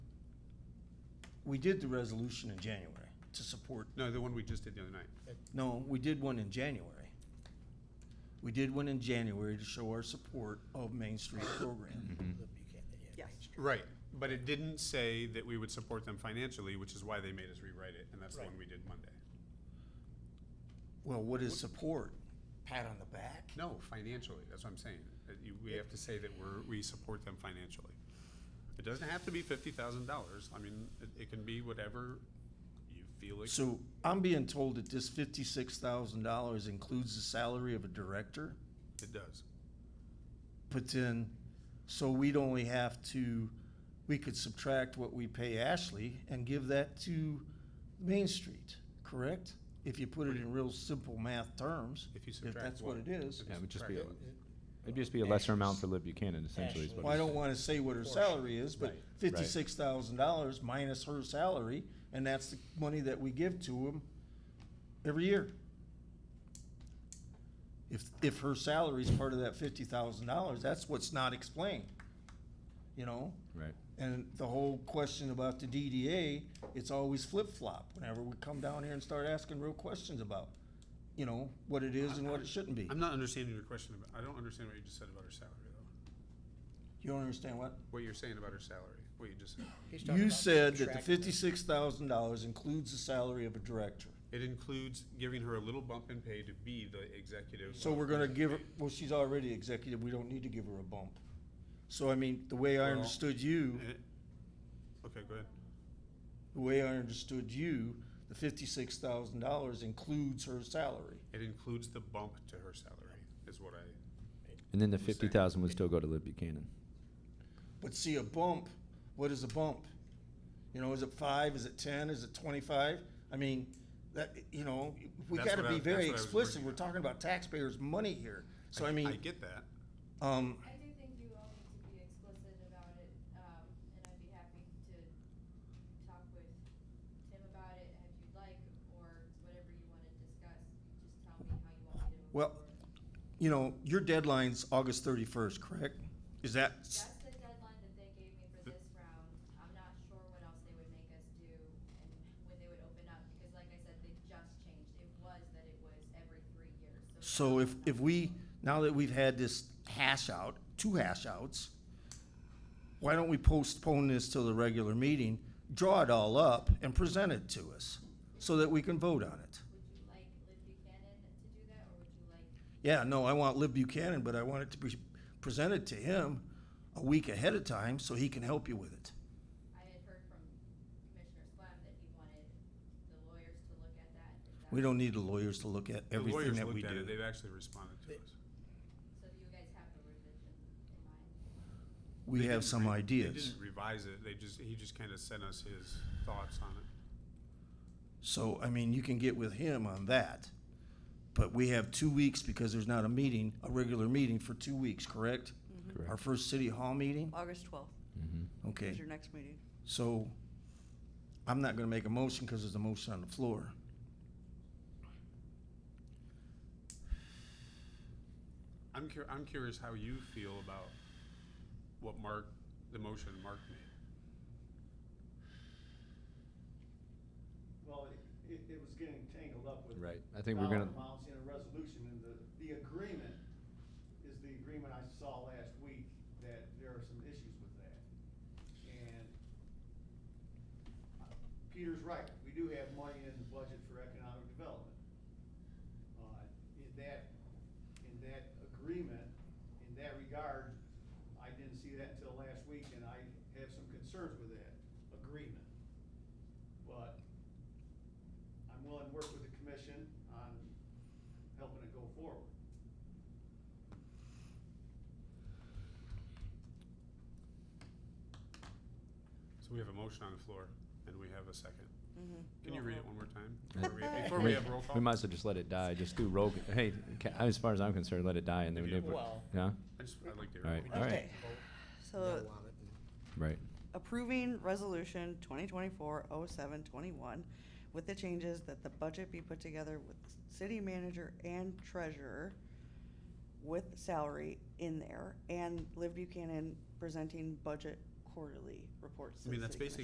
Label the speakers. Speaker 1: we did the resolution in January to support,
Speaker 2: No, the one we just did the other night.
Speaker 1: no, we did one in January. We did one in January to show our support of Main Street program.
Speaker 3: Yes.
Speaker 2: Right, but it didn't say that we would support them financially, which is why they made us rewrite it, and that's the one we did Monday.
Speaker 1: Well, what is support? Pat on the back?
Speaker 2: No, financially, that's what I'm saying. That you, we have to say that we're, we support them financially. It doesn't have to be fifty thousand dollars. I mean, it, it can be whatever you feel like.
Speaker 1: So I'm being told that this fifty-six thousand dollars includes the salary of a director,
Speaker 2: It does.
Speaker 1: but then, so we'd only have to, we could subtract what we pay Ashley and give that to Main Street, correct? If you put it in real simple math terms,
Speaker 2: If you
Speaker 1: if
Speaker 2: subtract
Speaker 1: that's what
Speaker 2: what?
Speaker 1: it is.
Speaker 2: If you
Speaker 4: Yeah, it would just
Speaker 2: subtract
Speaker 4: be
Speaker 2: what?
Speaker 4: It'd just be a lesser amount to Liv Buchanan, essentially, is what
Speaker 1: Well, I
Speaker 4: he's
Speaker 1: don't
Speaker 4: saying.
Speaker 1: wanna say what her salary is, but fifty-six thousand dollars minus her salary, and that's the money that we give to them every year. If, if her salary's part of that fifty thousand dollars, that's what's not explained, you know?
Speaker 4: Right.
Speaker 1: And the whole question about the DDA, it's always flip-flop whenever we come down here and start asking real questions about, you know, what it is and what it shouldn't be.
Speaker 2: I'm not understanding your question about, I don't understand what you just said about her salary though.
Speaker 1: You don't understand what?
Speaker 2: What you're saying about her salary, what you just said.
Speaker 3: He's talking
Speaker 1: You
Speaker 3: about
Speaker 1: said that the
Speaker 3: subtracting it.
Speaker 1: fifty-six thousand dollars includes the salary of a director.
Speaker 2: It includes giving her a little bump in pay to be the executive.
Speaker 1: So we're gonna give her, well, she's already executive, we don't need to give her a bump. So I mean, the way I
Speaker 2: Well,
Speaker 1: understood you,
Speaker 2: Eh, Okay, go ahead.
Speaker 1: the way I understood you, the fifty-six thousand dollars includes her salary.
Speaker 2: It includes the bump to her salary, is what I.
Speaker 4: And then the fifty thousand would still go to Liv Buchanan.
Speaker 1: But see, a bump, what is a bump? You know, is it five, is it ten, is it twenty-five? I mean, that, you know, we
Speaker 2: That's
Speaker 1: gotta
Speaker 2: what I-
Speaker 1: be
Speaker 2: that's
Speaker 1: very
Speaker 2: what I was
Speaker 1: explicit,
Speaker 2: bringing
Speaker 1: we're
Speaker 2: up.
Speaker 1: talking about taxpayers' money here. So I
Speaker 2: I
Speaker 1: mean,
Speaker 2: get that.
Speaker 1: um,
Speaker 5: I do think you all need to be explicit about it, um, and I'd be happy to talk with Tim about it if you'd like, or whatever you wanna discuss, just tell me how you want me to. move
Speaker 1: Well,
Speaker 5: forward.
Speaker 1: you know, your deadline's August thirty-first, correct? Is that,
Speaker 5: That's the deadline that they gave me for this round, I'm not sure what else they would make us do and when they would open up, because like I said, they just changed, it was that it was every three years, so.
Speaker 1: so if, if we, now that we've had this hash out, two hash outs, why don't we postpone this till the regular meeting, draw it all up and present it to us so that we can vote on it?
Speaker 5: Would you like Liv Buchanan to do that, or would you like
Speaker 1: Yeah, no, I want Lib Buchanan, but I want it to be presented to him a week ahead of time so he can help you with it.
Speaker 5: I had heard from Commissioner Swam that he wanted the lawyers to look at that. Is that-
Speaker 1: We don't need the lawyers to look at
Speaker 2: The
Speaker 1: everything
Speaker 2: lawyers
Speaker 1: that we
Speaker 2: looked at it,
Speaker 1: do.
Speaker 2: They've actually responded to us.
Speaker 5: So do you guys have a revision in mind?
Speaker 1: We
Speaker 2: They
Speaker 1: have
Speaker 2: didn't
Speaker 1: some
Speaker 2: re-
Speaker 1: ideas.
Speaker 2: They didn't revise it, they just, he just kinda sent us his thoughts on it.
Speaker 1: So, I mean, you can get with him on that. But we have two weeks because there's not a meeting, a regular meeting for two weeks, correct?
Speaker 2: Mm-hmm.
Speaker 1: Our
Speaker 4: Correct. Mm-hmm.
Speaker 1: first city hall meeting?
Speaker 3: August twelfth is
Speaker 1: Okay,
Speaker 3: your next meeting.
Speaker 1: so I'm not gonna make a motion because there's a motion on the floor.
Speaker 2: I'm cur- I'm curious how you feel about what Mark, the motion Mark made.
Speaker 6: Well, it- it, it was getting tangled up with.
Speaker 4: Right. I think we're gonna-
Speaker 6: dollar Amounts in a resolution, and the, the agreement is the agreement I saw last week, that there are some issues with that. And uh, Peter's right, we do have money in the budget for economic development. Uh, In that, in that agreement, in that regard, I didn't see that until last week, and I have some concerns with that agreement. But I'm willing to work with the commission on helping it go forward.
Speaker 2: So we have a motion on the floor, and we have a second.
Speaker 3: Mhm.
Speaker 2: Can you read it one more time?
Speaker 4: Yeah.
Speaker 2: before we- Before we have roll call?
Speaker 4: Uh, We might as well just let it die, just do roll, hey, ca- as far as I'm concerned, let it die and then we
Speaker 2: If you-
Speaker 4: did,
Speaker 7: Well-
Speaker 4: yeah,
Speaker 2: I just, I'd like to. hear
Speaker 4: All right.
Speaker 2: it.
Speaker 4: All right.
Speaker 3: Okay, so
Speaker 4: right.
Speaker 3: approving resolution twenty twenty-four oh seven twenty-one with the changes that the budget be put together with city manager and treasurer with salary in there and Liv Buchanan presenting budget quarterly reports
Speaker 2: I
Speaker 3: to the
Speaker 2: mean,
Speaker 3: city
Speaker 2: that's
Speaker 3: commission.